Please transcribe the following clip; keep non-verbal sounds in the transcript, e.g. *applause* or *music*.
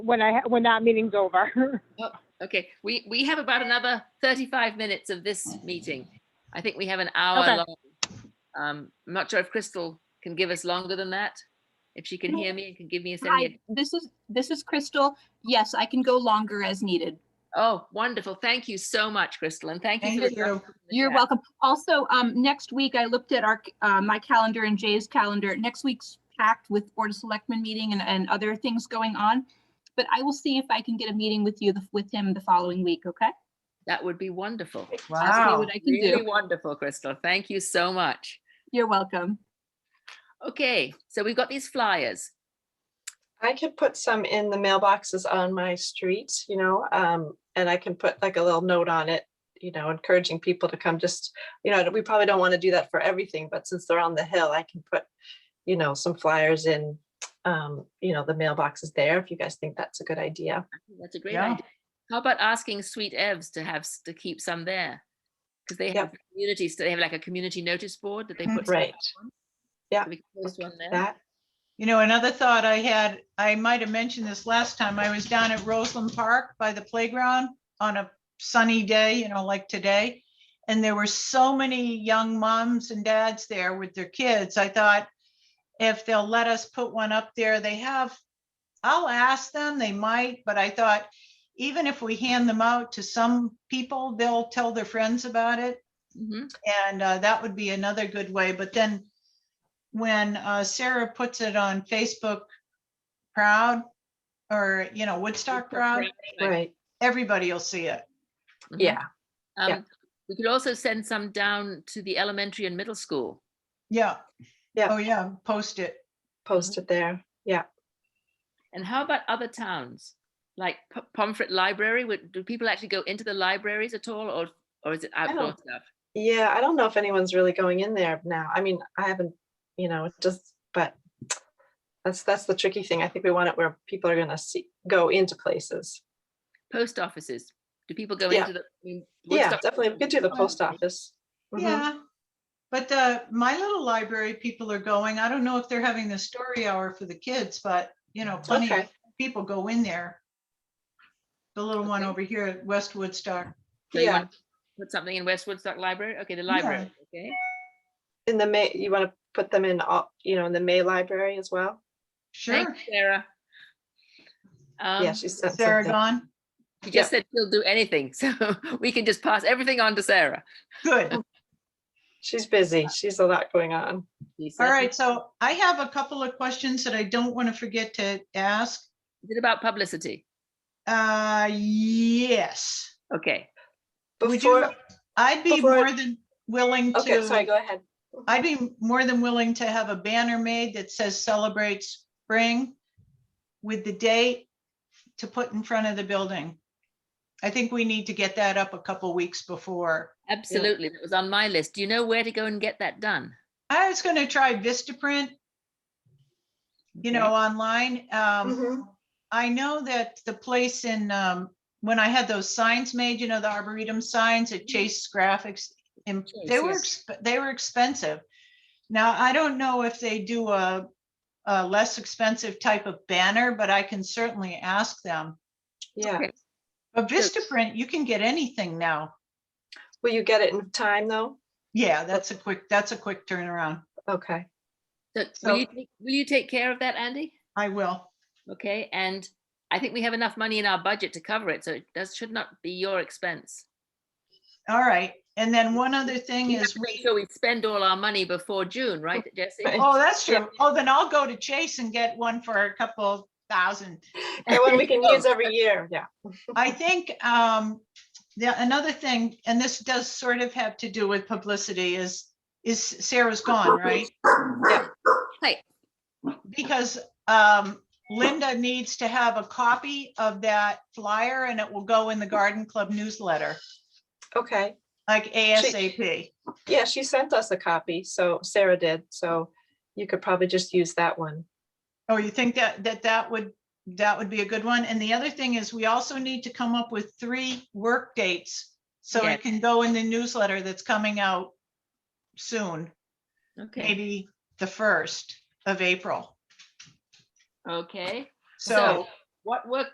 when I, ha- when that meeting's over. *laughs* Okay, we, we have about another 35 minutes of this meeting. I think we have an hour Okay. long. Um, I'm not sure if Crystal can give us longer than that, if she can No. hear me and can give me a Hi, second. this is, this is Crystal. Yes, I can go longer as needed. Oh, wonderful. Thank you so much, Crystal, and thank you. for Thank the you. update in the You're chat. welcome. Also, um, next week, I looked at our, uh, my calendar and Jay's calendar. Next week's packed with Board of Selectmen meeting and, and other things going on. But I will see if I can get a meeting with you, the- with him the following week, okay? That would be wonderful. I'll see Wow. what I can Really do. wonderful, Crystal. Thank you so much. You're welcome. Okay, so we've got these flyers. I could put some in the mailboxes on my street, you know, um, and I can put like a little note on it, you know, encouraging people to come just, you know, we probably don't want to do that for everything, but since they're on the hill, I can put, you know, some flyers in, um, you know, the mailboxes there, if you guys think that's a good idea. I think That's a great Yeah. idea. How about asking Sweet Evs to have, s- to keep some there? Because they Yep. have communities, they have like a community notice board that they Mhm. put. stuff Right, Yeah, So we can post one there. that, You know, another thought I had, I might have mentioned this last time, I was down at Roseland Park by the playground on a sunny day, you know, like today. And there were so many young moms and dads there with their kids. I thought if they'll let us put one up there, they have, I'll ask them, they might, but I thought even if we hand them out to some people, they'll tell their friends about it. Mhm. And uh, that would be another good way, but then when uh, Sarah puts it on Facebook Proud or, you know, Woodstock Proud, right, everybody will see it. Mhm. yeah, yeah. Um, We could also send some down to the elementary and middle school. Yeah. Yeah. Oh, yeah, post it. post it there, yeah. And how about other towns? Like P- Pomfret Library, would, do people actually go into the libraries at all or, or is it outdoor don't- stuff? Yeah, I don't know if anyone's really going in there now. I mean, I haven't, you know, it's just, but that's, that's the tricky thing. I think we want it where people are gonna see, go into places. Post offices, do people go Yeah. into the? I mean, Yeah, Woodstock- definitely. We could do the post office. Mhm. Yeah. But the, my little library people are going. I don't know if they're having the story hour for the kids, but you know, plenty of Okay, people go in there. The little one Okay. over here at West Woodstock. So you Yeah. want to Put something in West Woodstock Library? Okay, the library, okay? in the May, you wanna put them in, all you know, in the May library as well? Sure. Thanks, Sarah. Yeah, Um, she sent Sarah something. gone? she just said she'll do anything, *laughs* so we can just pass everything on to Sarah. Good. She's busy. She's a lot going on. She said. All right, so I have a couple of questions that I don't want to forget to ask. Is it about publicity? Uh, yes. Okay. Would you, Before, I'd be before- more than willing okay, sorry, to, go ahead. I'd be more than willing to have a banner made that says celebrate spring with the date to put in front of the building. I think we need to get that up a couple weeks before. Absolutely. That was on my list. Do you know where to go and get that done? I was gonna try Vistaprint, you Okay. know, online. Um, Mhm. I know that the place in, um, when I had those signs made, you know, the Arboretum signs at Chase Graphics, and Chase, they were, yes. exp- they were expensive. Now, I don't know if they do a, a less expensive type of banner, but I can certainly ask them. Yeah. Okay. But Vistaprint, you can get anything now. Will you get it in time though? Yeah, that's a quick, that's a quick turnaround. *laughs* Okay, So So- will you, take- will you take care of that, Andy? I will. Okay, and I think we have enough money in our budget to cover it, so it does, should not be your expense. All right. And then one other thing We have is, to we. make sure we spend all our money before June, right, Jesse? Right. Oh, that's Yeah. true. Oh, then I'll go to Chase and get one for a couple thousand. and one we can use Oh, every year, yeah. I think um, the, another thing, and this does sort of have to do with publicity is, is Sarah's gone, right? Right. Because um, Linda needs to have a copy of that flyer and it will go in the Garden Club newsletter, Okay. like ASAP. Yeah, she sent us a copy, so Sarah did, so you could probably just use that one. Oh, you think that, that that would, that would be a good one? And the other thing is we also need to come up with three work dates. So Yes. it can go in the newsletter that's coming out soon, Okay, maybe the first of April. okay. So What work